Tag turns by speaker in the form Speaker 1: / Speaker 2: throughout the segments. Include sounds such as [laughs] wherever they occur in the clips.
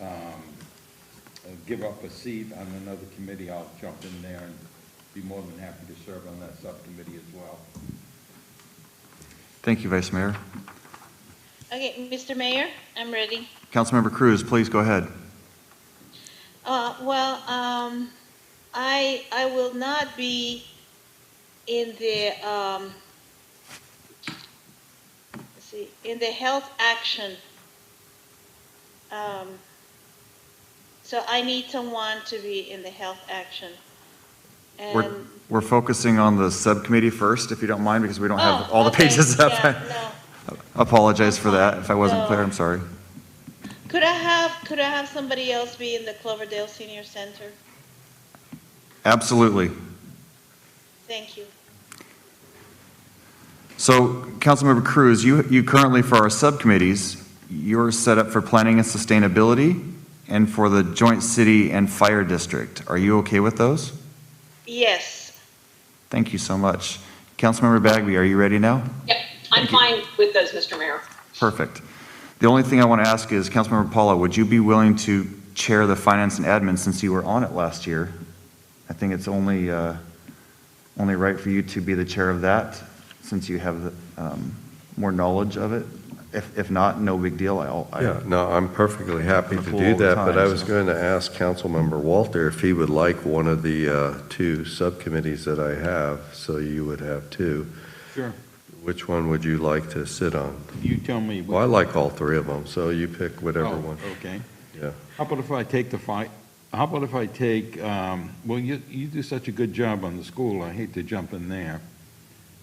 Speaker 1: Um, give up a seat on another committee, I'll jump in there and be more than happy to serve on that subcommittee as well.
Speaker 2: Thank you, Vice Mayor.
Speaker 3: Okay, Mr. Mayor, I'm ready.
Speaker 2: Councilmember Cruz, please go ahead.
Speaker 3: Uh, well, um, I, I will not be in the, um, let's see, in the health action. Um, so I need someone to be in the health action.
Speaker 2: We're,
Speaker 3: And,
Speaker 2: we're focusing on the subcommittee first, if you don't mind, because we don't have
Speaker 3: Oh,
Speaker 2: all the
Speaker 3: okay,
Speaker 2: pages up.
Speaker 3: yeah, no.
Speaker 2: [laughs] Apologize for that, if I wasn't
Speaker 3: No.
Speaker 2: clear, I'm sorry.
Speaker 3: could I have, could I have somebody else be in the Cloverdale Senior Center?
Speaker 2: Absolutely.
Speaker 3: Thank you.
Speaker 2: So, Councilmember Cruz, you, you currently, for our subcommittees, you're set up for planning and sustainability and for the joint city and fire district. Are you okay with those?
Speaker 3: Yes.
Speaker 2: Thank you so much. Councilmember Bagby, are you ready now?
Speaker 4: Yep, I'm fine with those, Mr. Mayor.
Speaker 2: Perfect. The only thing I want to ask is, Councilmember Paula, would you be willing to chair the Finance and Admin since you were on it last year? I think it's only, uh, only right for you to be the chair of that, since you have um, more knowledge of it. If, if not, no big deal. I'll,
Speaker 5: Yeah,
Speaker 2: I-
Speaker 5: no, I'm perfectly happy to
Speaker 2: Full
Speaker 5: do that, but I
Speaker 2: time,
Speaker 5: was
Speaker 2: so.
Speaker 5: going to ask Councilmember Walter if he would like one of the uh, two subcommittees that I have, so you would have two.
Speaker 1: Sure.
Speaker 5: Which one would you like to sit on?
Speaker 1: You tell me.
Speaker 5: Well, I like all three of them, so you pick whatever
Speaker 1: Oh,
Speaker 5: one.
Speaker 1: Okay.
Speaker 5: Yeah.
Speaker 1: How about if I take the fight, how about if I take, um, well, you, you do such a good job on the school, I hate to jump in there.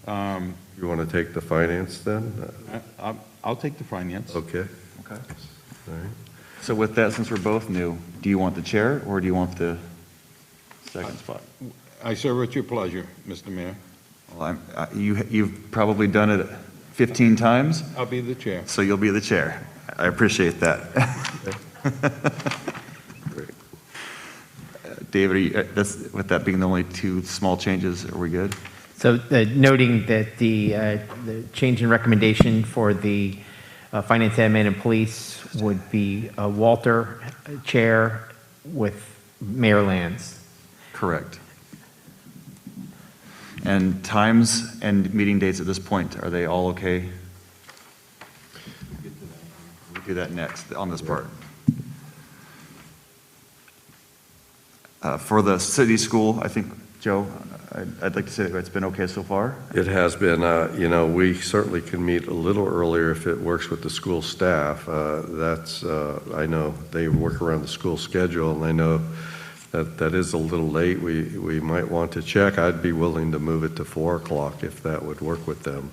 Speaker 1: Um,
Speaker 5: You want to take the finance then? Uh,
Speaker 1: I, I'll- I'll take the finance.
Speaker 5: Okay,
Speaker 2: Okay.
Speaker 5: all right.
Speaker 2: So with that, since we're both new, do you want the chair or do you want the second spot?
Speaker 1: I serve at your pleasure, Mr. Mayor.
Speaker 2: Well, I'm, I- you, you've probably done it 15 times,
Speaker 1: I'll be the chair.
Speaker 2: so you'll be the chair. I appreciate that.
Speaker 5: Great.
Speaker 2: David, are you- uh, that's, with that being the only two small changes, are we good?
Speaker 6: So uh, noting that the, uh, the change in recommendation for the uh, Finance, Admin, and Police would be uh, Walter uh, Chair with Mayor Lands.
Speaker 2: Correct. And times and meeting dates at this point, are they all okay? We'll do that next on this part. Uh, For the city school, I think, Joe, I'd I'd like to say that it's been okay so far.
Speaker 5: It has been, uh, you know, we certainly can meet a little earlier if it works with the school staff. Uh, That's, uh, I know, they work around the school schedule, and I know that that is a little late. We, we might want to check. I'd be willing to move it to 4 o'clock if that would work with them.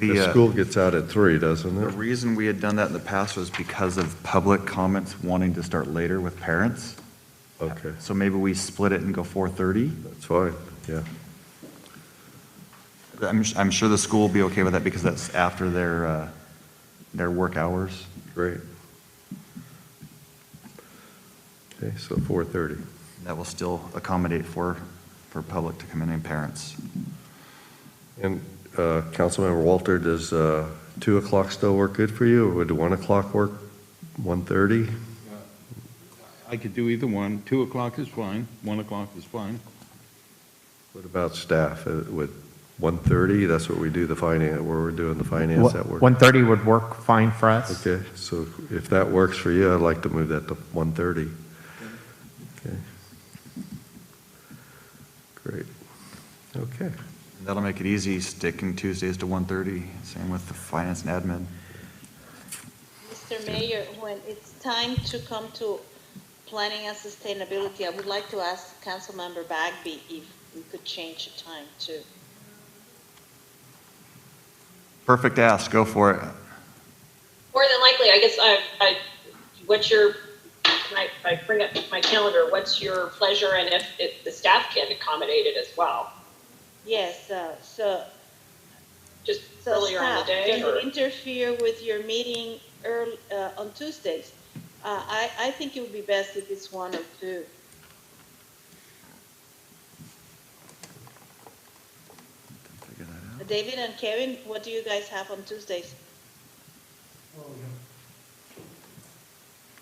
Speaker 2: The,
Speaker 5: The
Speaker 2: uh,
Speaker 5: school gets out at 3, doesn't
Speaker 2: The
Speaker 5: it?
Speaker 2: reason we had done that in the past was because of public comments wanting to start later with parents.
Speaker 5: Okay,
Speaker 2: So maybe we split it and go 4:30.
Speaker 5: that's fine, yeah.
Speaker 2: I'm, I'm sure the school will be okay with that because that's after their, uh, their work hours.
Speaker 5: Great. Okay, so 4:30.
Speaker 2: That will still accommodate for, for public to come in and parents.
Speaker 5: And uh, Councilmember Walter, does uh, 2 o'clock still work good for you, or would 1 o'clock work, 1:30?
Speaker 1: I could do either one. Two o'clock is fine, one o'clock is fine.
Speaker 5: What about staff, Uh, would 1:30, that's what we do the finance, where we're doing the finance at work?
Speaker 6: 1:30 would work fine for us.
Speaker 5: Okay, so if that works for you, I'd like to move that to 1:30. Okay. Great, okay.
Speaker 2: And That'll make it easy, sticking Tuesdays to 1:30, same with the finance and admin.
Speaker 3: Mr. Mayor, when it's time to come to planning and sustainability, I would like to ask Councilmember Bagby if we could change the time too.
Speaker 2: Perfect ask, go for it.
Speaker 4: More than likely, I guess I, I, what's your, can I, I bring up my calendar, what's your pleasure and if, if the staff can accommodate it as well?
Speaker 3: Yes, uh, so,
Speaker 4: Just
Speaker 3: so
Speaker 4: earlier in the
Speaker 3: staff,
Speaker 4: day
Speaker 3: does
Speaker 4: or?
Speaker 3: it interfere with your meeting earl uh, on Tuesdays? Uh, I, I think it would be best if it's one or two. David and Kevin, what do you guys have on Tuesdays?